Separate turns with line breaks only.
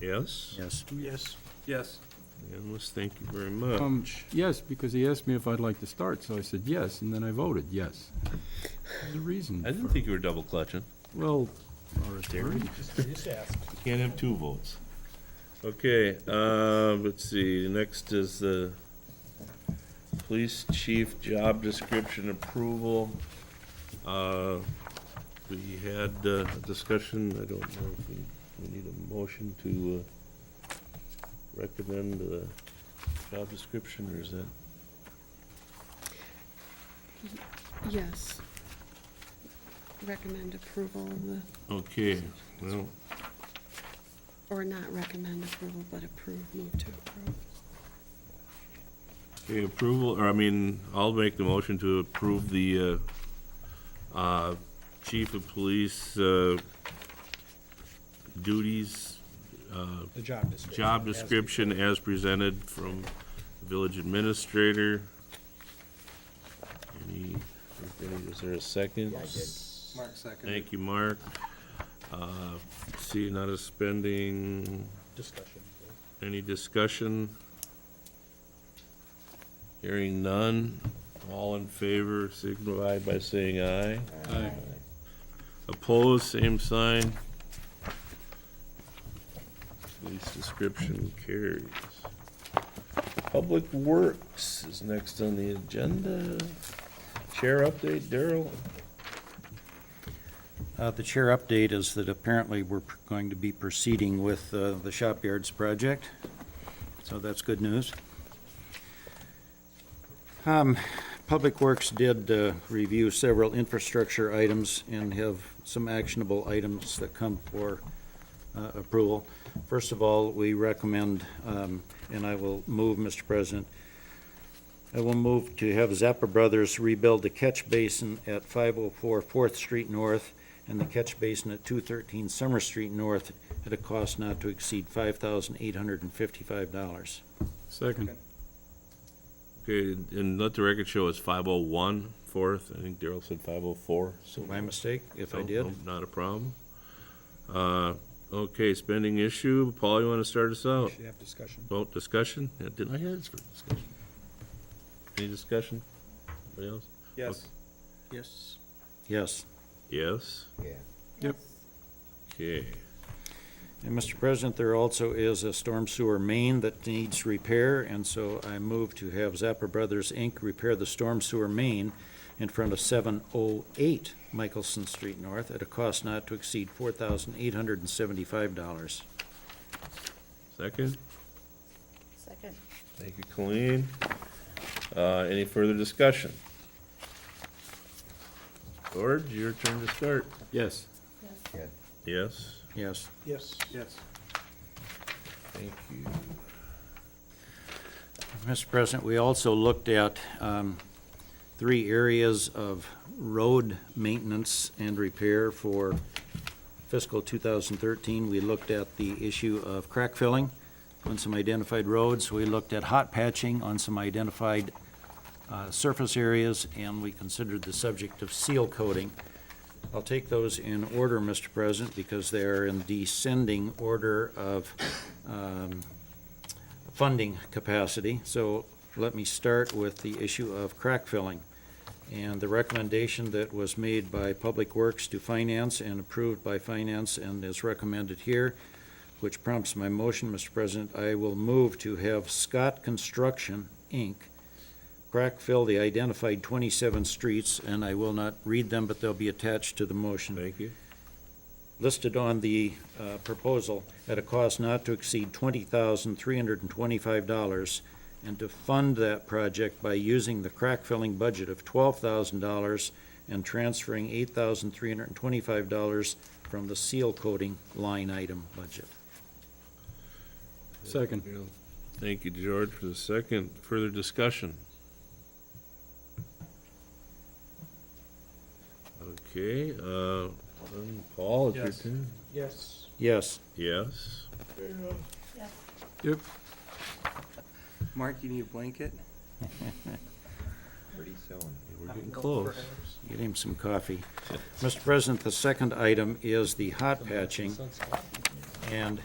Yes?
Yes.
Yes. Yes.
Unanimous, thank you very much.
Um, Yes, because he asked me if I'd like to start, so I said yes, and then I voted yes. There's a reason.
I didn't
for-
think you were double clutching.
Well,
Can't have two votes. Okay, uh, let's see, next is the police chief job description approval. Uh, We had uh, a discussion, I don't know if we, we need a motion to uh, recommend the job description, or is that?
Yes. Recommend approval, of the-
Okay, well,
or not recommend approval, but approve, move to approve.
Okay, approval, or I mean, I'll make the motion to approve the uh, uh, chief of police uh, duties, uh,
The job description.
job description as presented from the village administrator. Any, is there a second?
Mark second.
Thank you, Mark. Uh, See, not a spending,
Discussion.
any discussion? Hearing none. All in favor signify by saying aye.
I-
Opposed, same sign. Police description carries. Public Works is next on the agenda. Chair update, Daryl?
Uh, The chair update is that apparently we're pr- going to be proceeding with uh, the shop yards project, so that's good news. Um, Public Works did uh, review several infrastructure items and have some actionable items that come for uh, approval. First of all, we recommend, um, and I will move, Mr. President, I will move to have Zappa Brothers rebuild the catch basin at 504 4th Street North and the catch basin at 213 Summer Street North at a cost not to exceed $5,855.
Second.
Okay, and let the record show it's 501 fourth. I think Daryl said 504, so.
My mistake, if I
No,
did?
no, Not a problem. Uh, Okay, spending issue. Paul, you want to start us out?
Should have discussion.
Vote discussion? Yeah, Didn't I ask for discussion? Any discussion? Anybody else?
Yes. Yes.
Yes.
Yes?
Yep.
Okay.
And Mr. President, there also is a storm sewer main that needs repair, and so I move to have Zappa Brothers, Inc. repair the storm sewer main in front of 708 Michelson Street North at a cost not to exceed $4,875.
Second?
Second.
Thank you, Colleen. Uh, Any further discussion? George, your turn to start.
Yes.
Yes?
Yes.
Yes. Yes.
Thank you.
Mr. President, we also looked at um, three areas of road maintenance and repair for fiscal 2013. We looked at the issue of crack filling on some identified roads. We looked at hot patching on some identified uh, surface areas, and we considered the subject of seal coating. I'll take those in order, Mr. President, because they are in descending order of um, funding capacity. So let me start with the issue of crack filling. And the recommendation that was made by Public Works to Finance and approved by Finance and is recommended here, which prompts my motion, Mr. President, I will move to have Scott Construction, Inc., crack fill the identified 27 streets, and I will not read them, but they'll be attached to the motion
Thank you.
listed on the uh, proposal at a cost not to exceed $20,325, and to fund that project by using the crack filling budget of $12,000 and transferring $8,325 from the seal coating line item budget.
Second.
Thank you, George, for the second. Further discussion? Okay, uh, um, Paul, it's your
Yes.
turn.
Yes.
Yes.
Yes?
Yep.
Mark, you need a blanket?
We're getting close.
Get him some coffee. Mr. President, the second item is the hot patching. And